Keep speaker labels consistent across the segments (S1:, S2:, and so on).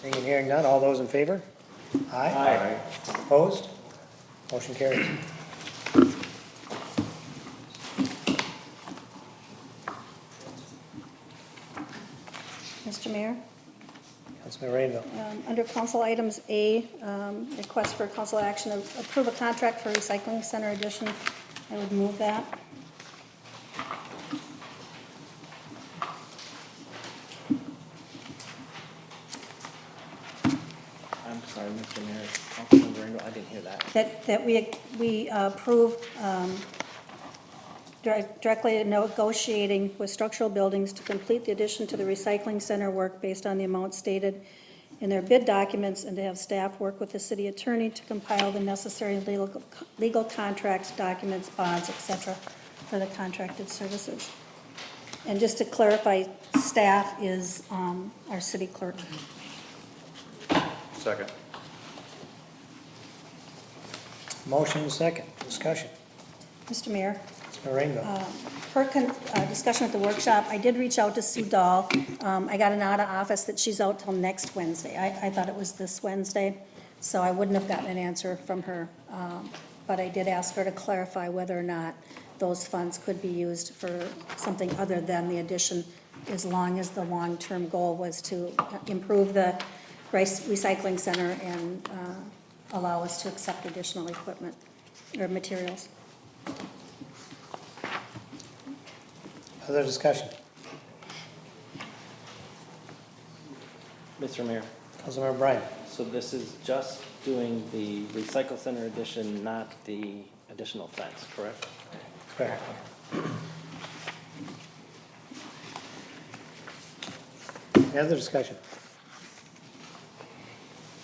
S1: Seeing and hearing none, all those in favor? Aye. Opposed? Motion carries.
S2: Mr. Mayor,
S1: Councilman Rainville.
S2: um, under council items A, um, request for council action to approve a contract for recycling center addition, I would move that.
S3: I'm sorry, Mr. Mayor, Councilmember Ringo, I didn't hear that.
S2: That, that we, we approve um, direct- directly negotiating with structural buildings to complete the addition to the recycling center work based on the amount stated in their bid documents and to have staff work with the city attorney to compile the necessary legal, legal contracts, documents, bonds, et cetera, for the contracted services. And just to clarify, staff is um, our city clerk.
S4: Second.
S1: Motion second, discussion.
S2: Mr. Mayor?
S1: Councilman Rainville.
S2: Per con- uh, discussion at the workshop, I did reach out to Sue Dahl. Um, I got an out of office that she's out till next Wednesday. I, I thought it was this Wednesday, so I wouldn't have gotten an answer from her. Um, But I did ask her to clarify whether or not those funds could be used for something other than the addition, as long as the long-term goal was to improve the rice- recycling center and uh, allow us to accept additional equipment or materials.
S1: Other discussion.
S3: Mr. Mayor,
S1: Councilmember Bryan.
S3: so this is just doing the recycle center addition, not the additional fence, correct?
S1: Correct. Any other discussion?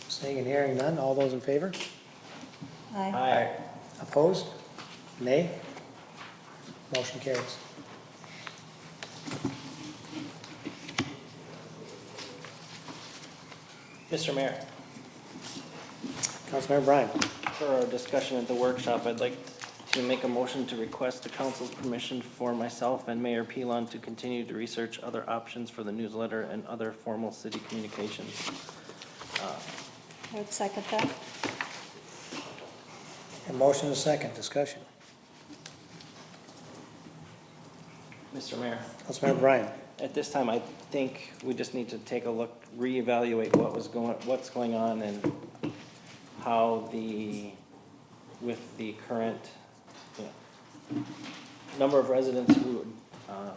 S1: Seeing and hearing none, all those in favor?
S2: Aye.
S3: Aye.
S1: Opposed? Nay? Motion carries.
S3: Mr. Mayor,
S1: Councilmember Bryan.
S3: for our discussion at the workshop, I'd like to make a motion to request the council's permission for myself and Mayor Pelon to continue to research other options for the newsletter and other formal city communications.
S2: I would second that.
S1: A motion is second, discussion.
S3: Mr. Mayor.
S1: Councilmember Bryan.
S3: At this time, I think we just need to take a look, reevaluate what was going, what's going on and how the, with the current, you know, number of residents who uh,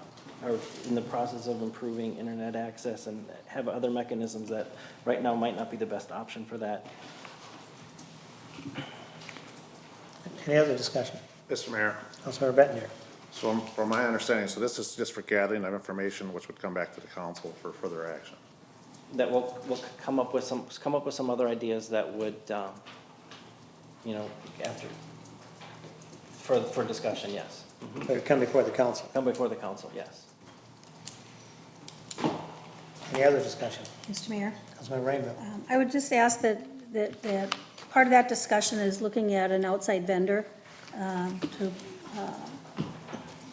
S3: are in the process of improving internet access and have other mechanisms that right now might not be the best option for that.
S1: Any other discussion?
S4: Mr. Mayor,
S1: Councilmember Bettner.
S4: so from- from my understanding, so this is just for gathering of information which would come back to the council for further action.
S3: That we'll, we'll come up with some, come up with some other ideas that would, um, you know, after, for, for discussion, yes.
S1: That would come before the council.
S3: Come before the council, yes.
S1: Any other discussion?
S2: Mr. Mayor?
S1: Councilmember Rainville.
S2: Um, I would just ask that, that, that, part of that discussion is looking at an outside vendor um, to uh,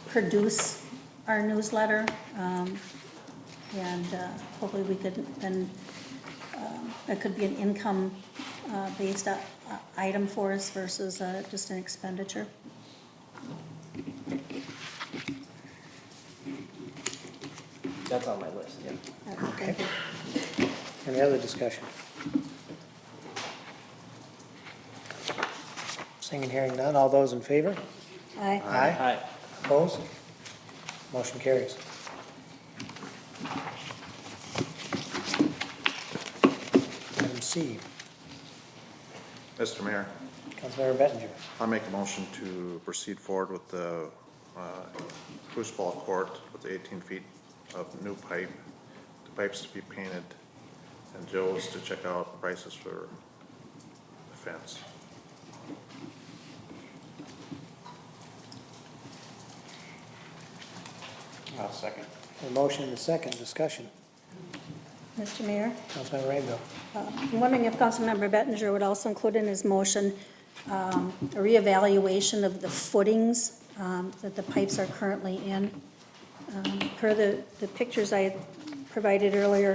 S2: produce our newsletter. um, And uh, hopefully we could, then, um, that could be an uh, income-based item for us versus uh, just an expenditure.
S3: That's on my list, yeah.
S2: Uh, Thank you.
S1: Any other discussion? Seeing and hearing none, all those in favor?
S2: Aye.
S1: Aye.
S3: Hi,
S1: Opposed? Motion carries. Item C,
S4: Mr. Mayor,
S1: Councilmember Bettinger.
S4: I'll make a motion to proceed forward with the uh, Spruce Ball Court with the 18 feet of new pipe. The pipe's to be painted, and Joe's to check out prices for the fence.
S5: I'll second.
S1: A motion and a second, discussion.
S2: Mr. Mayor?
S1: Councilmember Rainville.
S2: I'm wondering if Councilmember Bettinger would also include in his motion um, a reevaluation of the footings um, that the pipes are currently in. Um, Per the, the pictures I provided earlier,